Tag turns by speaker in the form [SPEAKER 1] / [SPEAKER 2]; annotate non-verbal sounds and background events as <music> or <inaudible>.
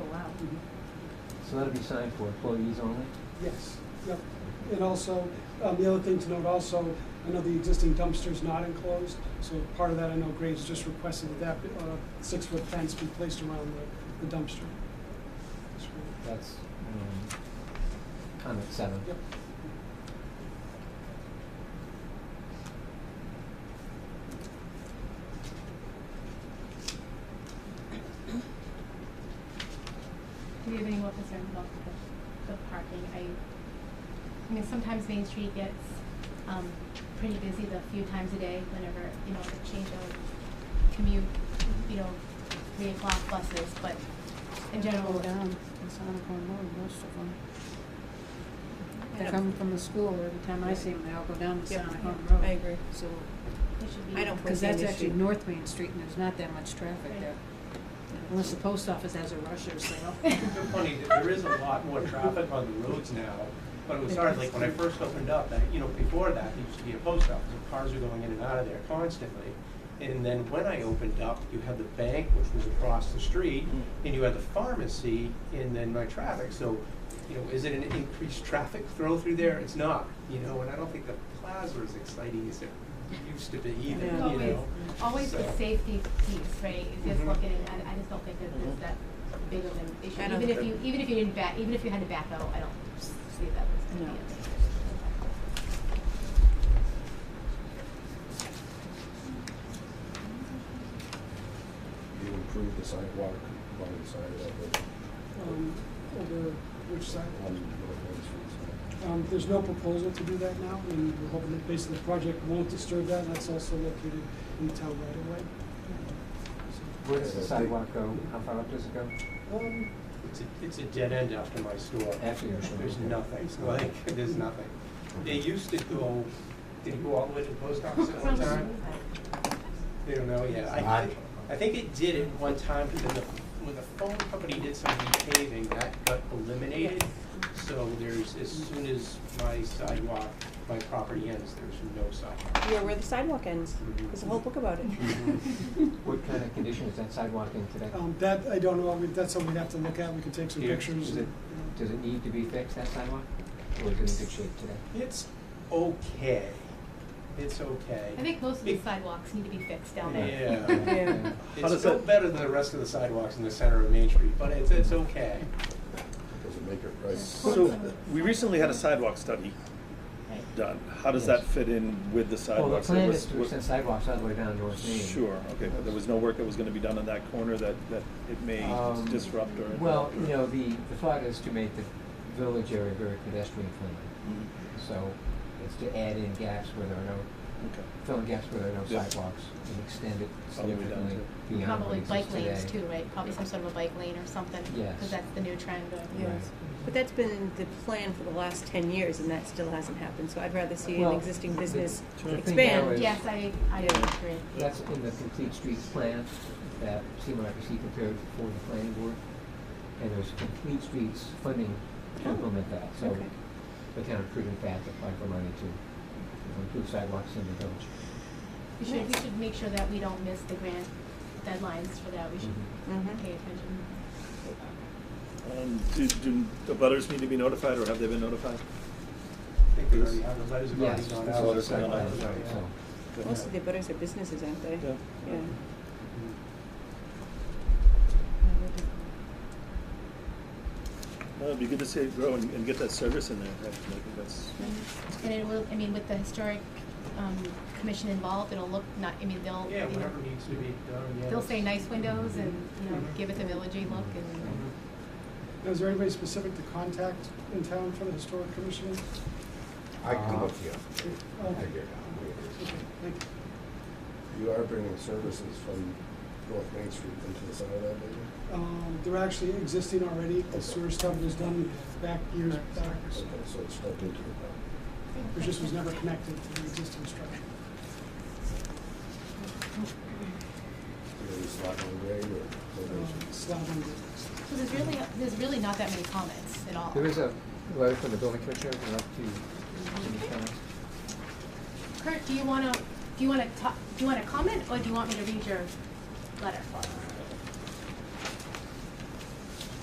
[SPEAKER 1] Mhm.
[SPEAKER 2] So that'll be signed for employees only?
[SPEAKER 1] Yes, yep. And also, um, the other thing to note also, I know the existing dumpster's not enclosed, so part of that, I know Graves just requested that that, uh, six-foot fence be placed around the, the dumpster.
[SPEAKER 2] That's, um, comment seven.
[SPEAKER 1] Yep.
[SPEAKER 3] Do you have any more concerns about the, the parking? I, I mean, sometimes Main Street gets, um, pretty busy the few times a day whenever, you know, the change of commute, you know, three o'clock buses, but in general.
[SPEAKER 4] Go down, it's on Elkhorn Road, most of them.
[SPEAKER 3] I
[SPEAKER 4] They
[SPEAKER 3] don't-
[SPEAKER 4] come from the school, every time I
[SPEAKER 5] Yeah.
[SPEAKER 4] see them, they all go down to
[SPEAKER 5] Yeah,
[SPEAKER 4] Sonic Home
[SPEAKER 5] yeah,
[SPEAKER 4] Road.
[SPEAKER 5] I agree.
[SPEAKER 4] So,
[SPEAKER 3] it should be.
[SPEAKER 5] I don't-
[SPEAKER 4] because
[SPEAKER 5] Or
[SPEAKER 4] that's
[SPEAKER 5] Main
[SPEAKER 4] actually
[SPEAKER 5] Street.
[SPEAKER 4] North Main Street and there's not that much traffic
[SPEAKER 3] Right.
[SPEAKER 4] there. Unless the post office has a rusher sale.
[SPEAKER 6] It's funny, th- there is a lot more traffic on the roads now, but it was hard, like, when I first opened up, that, you know, before that, there used to be a post office, and cars were going in and out of there constantly. And then when I opened up, you had the bank, which was across the street, and you had the pharmacy, and then my traffic, so, you know, is it an increased traffic throw through there? It's not, you know, and I don't think the plaza is exciting as it used to be either, you
[SPEAKER 3] It's
[SPEAKER 6] know?
[SPEAKER 3] Always, always the
[SPEAKER 6] So-
[SPEAKER 3] safety piece, right, is just
[SPEAKER 6] Mhm.
[SPEAKER 3] looking, and I, I just don't think that
[SPEAKER 6] Mm-hmm.
[SPEAKER 3] there's that big of an issue.
[SPEAKER 5] I don't
[SPEAKER 3] Even if
[SPEAKER 5] think-
[SPEAKER 3] you, even if you didn't back, even if you had to back out, I don't see that as gonna be a
[SPEAKER 5] No.
[SPEAKER 3] big issue.
[SPEAKER 7] you improve the sidewalk along the side of the,
[SPEAKER 1] Um, over which side?
[SPEAKER 7] on the North Main Street side.
[SPEAKER 1] Um, there's no proposal to do that now, and we're hoping that basically the project won't disturb that, and that's also located in the town right away.
[SPEAKER 2] Where does the
[SPEAKER 7] Yeah, they-
[SPEAKER 2] sidewalk go? How far up does it go?
[SPEAKER 1] Um,
[SPEAKER 6] It's a, it's a dead end after my store.
[SPEAKER 2] After your store,
[SPEAKER 6] There's
[SPEAKER 2] okay.
[SPEAKER 6] nothing, like, there's nothing. They used to go, did it go all the way to the post office at one time? They don't know yet. I think, I think it did at one time, but then the, when the phone company did some repaving, that got eliminated. So there's, as soon as my sidewalk, my property ends, there's no sidewalk.
[SPEAKER 5] Yeah, where the sidewalk ends.
[SPEAKER 6] Mhm.
[SPEAKER 5] There's a whole book about it.
[SPEAKER 2] Mm-hmm. What kind of condition is that sidewalk in today?
[SPEAKER 1] um, that, I don't know, I mean, that's something we have to look at, we can take some
[SPEAKER 6] Yeah,
[SPEAKER 1] pictures.
[SPEAKER 2] is it-
[SPEAKER 1] you know.
[SPEAKER 2] Does it need to be fixed, that sidewalk? Or is it in good shape today?
[SPEAKER 6] It's okay. It's okay.
[SPEAKER 3] I think most of the
[SPEAKER 6] Be-
[SPEAKER 3] sidewalks need to be fixed down there. <laughs>
[SPEAKER 6] Yeah.
[SPEAKER 5] Yeah.
[SPEAKER 6] It's still better than the rest of the sidewalks in the center of Main Street, but it's, it's okay.
[SPEAKER 7] Doesn't make it right.
[SPEAKER 8] So, we recently had a sidewalk study
[SPEAKER 3] Right.
[SPEAKER 8] done. How does that fit in with the
[SPEAKER 2] Well, the
[SPEAKER 8] sidewalks? There
[SPEAKER 2] plan
[SPEAKER 8] was-
[SPEAKER 2] is to
[SPEAKER 8] was-
[SPEAKER 2] extend sidewalks all the way down North Main.
[SPEAKER 8] Sure, okay, but there was no work that was gonna be done on that corner that, that it may
[SPEAKER 2] Um,
[SPEAKER 8] disrupt or?
[SPEAKER 2] Well, you know, the, the thought is to make the village area very pedestrian friendly.
[SPEAKER 8] Mhm,
[SPEAKER 2] So it's to add in gaps where there are no,
[SPEAKER 8] Okay.
[SPEAKER 2] fill in gaps where there are no
[SPEAKER 8] Yeah.
[SPEAKER 2] sidewalks and extend it
[SPEAKER 8] All the way down
[SPEAKER 2] significantly
[SPEAKER 8] to-
[SPEAKER 2] beyond what
[SPEAKER 3] Probably
[SPEAKER 2] exists today.
[SPEAKER 3] bike lanes too, right? Probably some sort of a bike lane or something.
[SPEAKER 2] Yes.
[SPEAKER 3] Because that's the new trend of.
[SPEAKER 2] Right.
[SPEAKER 5] Yes. But that's been the plan for the last ten years and that still hasn't happened, so I'd rather see an
[SPEAKER 2] Well,
[SPEAKER 5] existing
[SPEAKER 2] the-
[SPEAKER 5] business
[SPEAKER 2] the thing now
[SPEAKER 5] expand.
[SPEAKER 2] is-
[SPEAKER 3] Yes, I, I
[SPEAKER 5] Yeah.
[SPEAKER 3] agree.
[SPEAKER 2] That's in the complete streets plan that CMRPC prepared for the planning board. And there's complete streets funding to
[SPEAKER 5] Oh,
[SPEAKER 2] implement that, so
[SPEAKER 5] okay.
[SPEAKER 2] the town of Prudent Path applied for money to you know, improve sidewalks in the village.
[SPEAKER 3] We should, we should make sure that we don't miss the grant deadlines for that. We should
[SPEAKER 5] Mhm.
[SPEAKER 3] pay attention.
[SPEAKER 8] And do, do Um, the butters need to be notified or have they been notified?
[SPEAKER 6] I think we already have, the letters have already
[SPEAKER 2] Yes,
[SPEAKER 6] gone
[SPEAKER 2] this
[SPEAKER 6] out.
[SPEAKER 2] is the
[SPEAKER 8] Letters have
[SPEAKER 2] site
[SPEAKER 8] gone
[SPEAKER 2] plan,
[SPEAKER 8] out.
[SPEAKER 2] right, so.
[SPEAKER 5] Most of the butters are businesses, aren't they?
[SPEAKER 8] Yeah.
[SPEAKER 5] Yeah.
[SPEAKER 8] Well, it'd be good to see it grow and, and get that service in there. I think that's,
[SPEAKER 3] And it will, I mean, with the historic, um, commission involved, it'll look not, I mean, they'll,
[SPEAKER 6] Yeah,
[SPEAKER 3] you know,
[SPEAKER 6] whatever needs to be done, yeah.
[SPEAKER 3] they'll say nice windows and, you know,
[SPEAKER 6] Mhm.
[SPEAKER 3] give it the villagey look and.
[SPEAKER 6] Mhm.
[SPEAKER 1] Now, Is there anybody specific to contact in town for the historic commission?
[SPEAKER 7] I can
[SPEAKER 2] Uh,
[SPEAKER 7] look you up.
[SPEAKER 1] Oh,
[SPEAKER 7] I
[SPEAKER 1] okay,
[SPEAKER 7] figure it out where it is.
[SPEAKER 1] thank you.
[SPEAKER 7] You are bringing services from North Main Street into the center of that building?
[SPEAKER 1] Um, they're actually existing already, the sewer stuff was done back years back,
[SPEAKER 7] Okay, so it's stuck into the ground.
[SPEAKER 1] it just was never connected to the existing structure.
[SPEAKER 7] Either it's locked on grade or
[SPEAKER 1] Um,
[SPEAKER 7] elevation.
[SPEAKER 1] slab on
[SPEAKER 3] So there's really, there's really not that many comments at all.
[SPEAKER 2] There is a letter from the building commissioner, I'd like to, any comments?
[SPEAKER 3] Kurt, do you wanna, do you wanna talk, do you wanna comment, or do you want me to read your letter?